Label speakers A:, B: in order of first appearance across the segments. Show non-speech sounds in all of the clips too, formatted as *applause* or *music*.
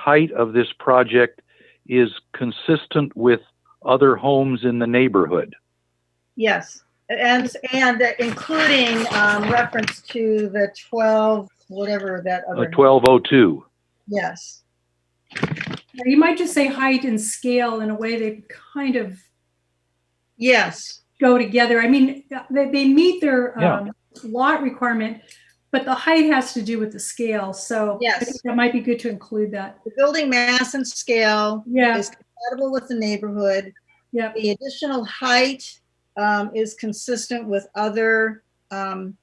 A: height of this project is consistent with other homes in the neighborhood.
B: Yes, and, and including um, reference to the 12, whatever that
A: Uh,
B: other.
A: 1202.
B: Yes,
C: Or You might just say height and scale in a way they kind of
B: yes,
C: go together. I mean, they, they meet their
A: Yeah.
C: um, lot requirement, but the height has to do with the scale. So I
B: Yes.
C: think that might be good to include that.
B: the building mass and scale
C: Yeah,
B: Yes. compatible with the neighborhood.
C: yeah,
B: The additional height um, is consistent with other um,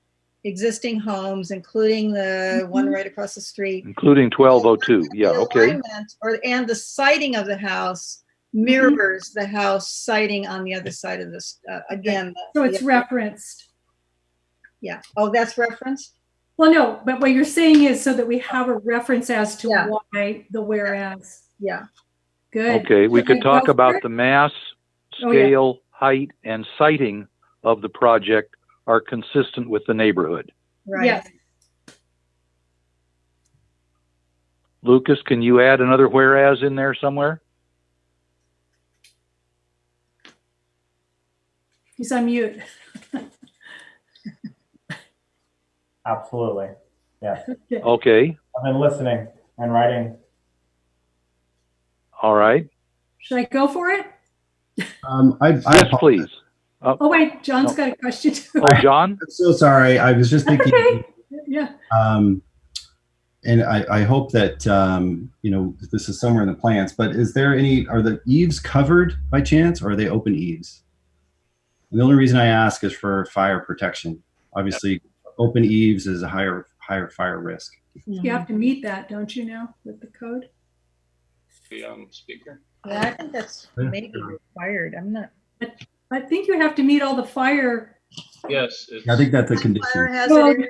B: existing homes, including the one
C: Mhm.
B: right across the street.
A: Including 1202. Yeah,
B: The
A: okay.
B: alignment Or, and the siding of the house
C: Mm-hmm.
B: mirrors the house siding on the other side of this, uh, again.
C: so it's
B: yeah,
C: referenced.
B: Yeah, oh, that's referenced?
C: Well, no, but what you're saying is so that we have a reference as to
B: Yeah.
C: why the whereas.
B: Yeah,
C: Good.
A: Okay, we could
C: Should I
A: talk
C: go
A: about
C: first?
A: the mass,
C: Oh, yeah.
A: scale, height, and sighting of the project are consistent with the neighborhood.
B: right.
C: Yes.
A: Lucas, can you add another whereas in there somewhere?
C: He's on mute.
D: Absolutely.
A: Okay,
D: I've been listening and writing.
A: all right.
C: Should I go for it?
E: Um, I, I
A: Yes,
E: apologize.
A: please.
C: Oh, wait, John's
A: No.
C: got a question too.
A: Oh, John?
E: I'm so sorry. I was just
C: That's
E: thinking,
C: *laughs* okay. Yeah,
E: um, and I, I hope that um, you know this is somewhere in the plans. But is there any? Are the eaves covered by chance, or are they open eaves? And the only reason I ask is for fire protection. Obviously, open eaves is a higher higher fire risk.
B: Hmm.
C: you have to meet that, don't you know, with the code?
F: the um, speaker.
B: Yeah, I think that's
E: Yeah.
B: maybe required, I'm not.
C: I think you have to meet all the fire
F: Yes, it's,
E: I think that's a
B: Fire
E: condition.
B: hazard,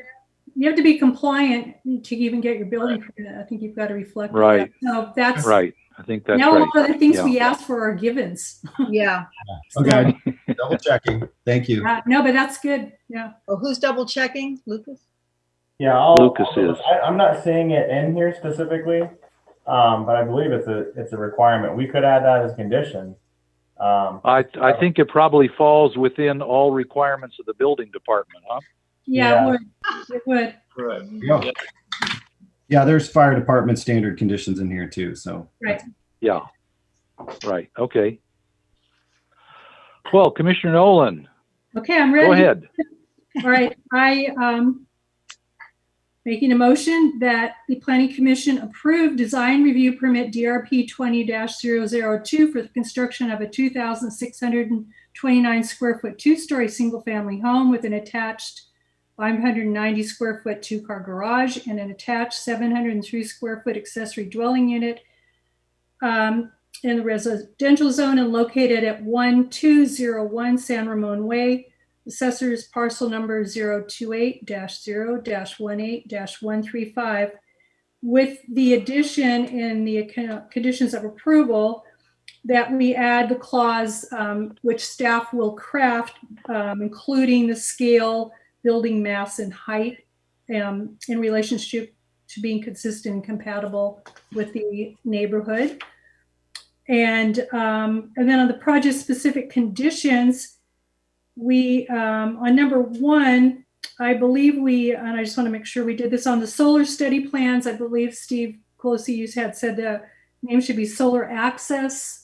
C: You have to be compliant to even get your building permit. I think you've got to reflect. that.
A: Right.
C: So that's,
A: Right, I think that's
C: now
A: right.
C: all the things
A: Yeah.
C: we ask for are givens. *laughs*
B: yeah,
E: Okay, double checking. Thank you.
C: Uh, No, but that's good. Yeah.
B: well, who's double checking, Lucas?
D: Yeah, I'll,
A: Lucas
D: I'll-
A: is.
D: I, I'm not seeing it in here specifically, um, but I believe it's a it's a requirement. We could add that as a condition. Um,
A: I, I think it probably falls within all requirements of the building department, huh?
C: Yeah, it
D: Yeah.
C: would. It would.
F: correct.
E: Yeah. yeah, there's fire department standard conditions in here too. So
C: Right.
A: Yeah, right, okay. Well, Commissioner Nolan,
C: Okay, I'm ready.
A: go ahead.
C: All right, I, um, making a motion that the planning commission approve design review permit DRP twenty 2 for the construction of a two thousand six hundred and twenty-nine square foot, two-story, single-family home with an attached five hundred and ninety square foot two-car garage and an attached seven hundred and three square foot accessory dwelling unit um, in the residential zone and located at one two zero one San Ramon Way, Assessor's parcel number 028-0-18-135 with the addition in the account- conditions of approval that we add the clause um, which staff will craft, um, including the scale, building mass and height um, in relationship to being consistent and compatible with the neighborhood. And, um, and then on the project-specific conditions, we, um, on number one, I believe we, and I just want to make sure we did this on the solar study plans. I believe Steve Closey, you had said the name should be solar access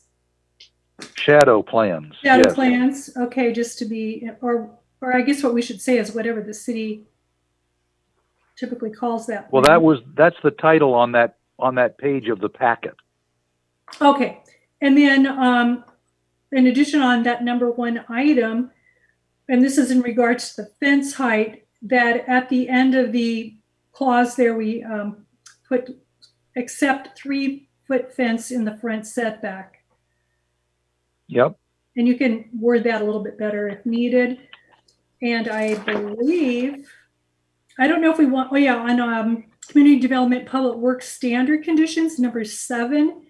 A: Shadow plans.
C: data
A: yes.
C: plans. Okay, just to be, or, or I guess what we should say is whatever the city typically calls that.
A: Well,
C: plan.
A: that was, that's the title on that, on that page of the packet.
C: Okay, and then, um, in addition on that number one item, and this is in regards to the fence height, that at the end of the clause there, we, um, put, except three-foot fence in the front setback.
A: Yep,
C: And you can word that a little bit better if needed. And I believe, I don't know if we want, oh yeah, on um, community development, public works standard conditions, number seven,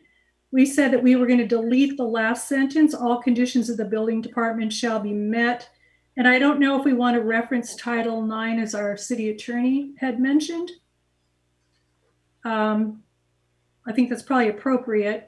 C: we said that we were going to delete the last sentence, all conditions of the building department shall be met. And I don't know if we want to reference Title Nine as our city attorney had mentioned. Um, I think that's probably appropriate.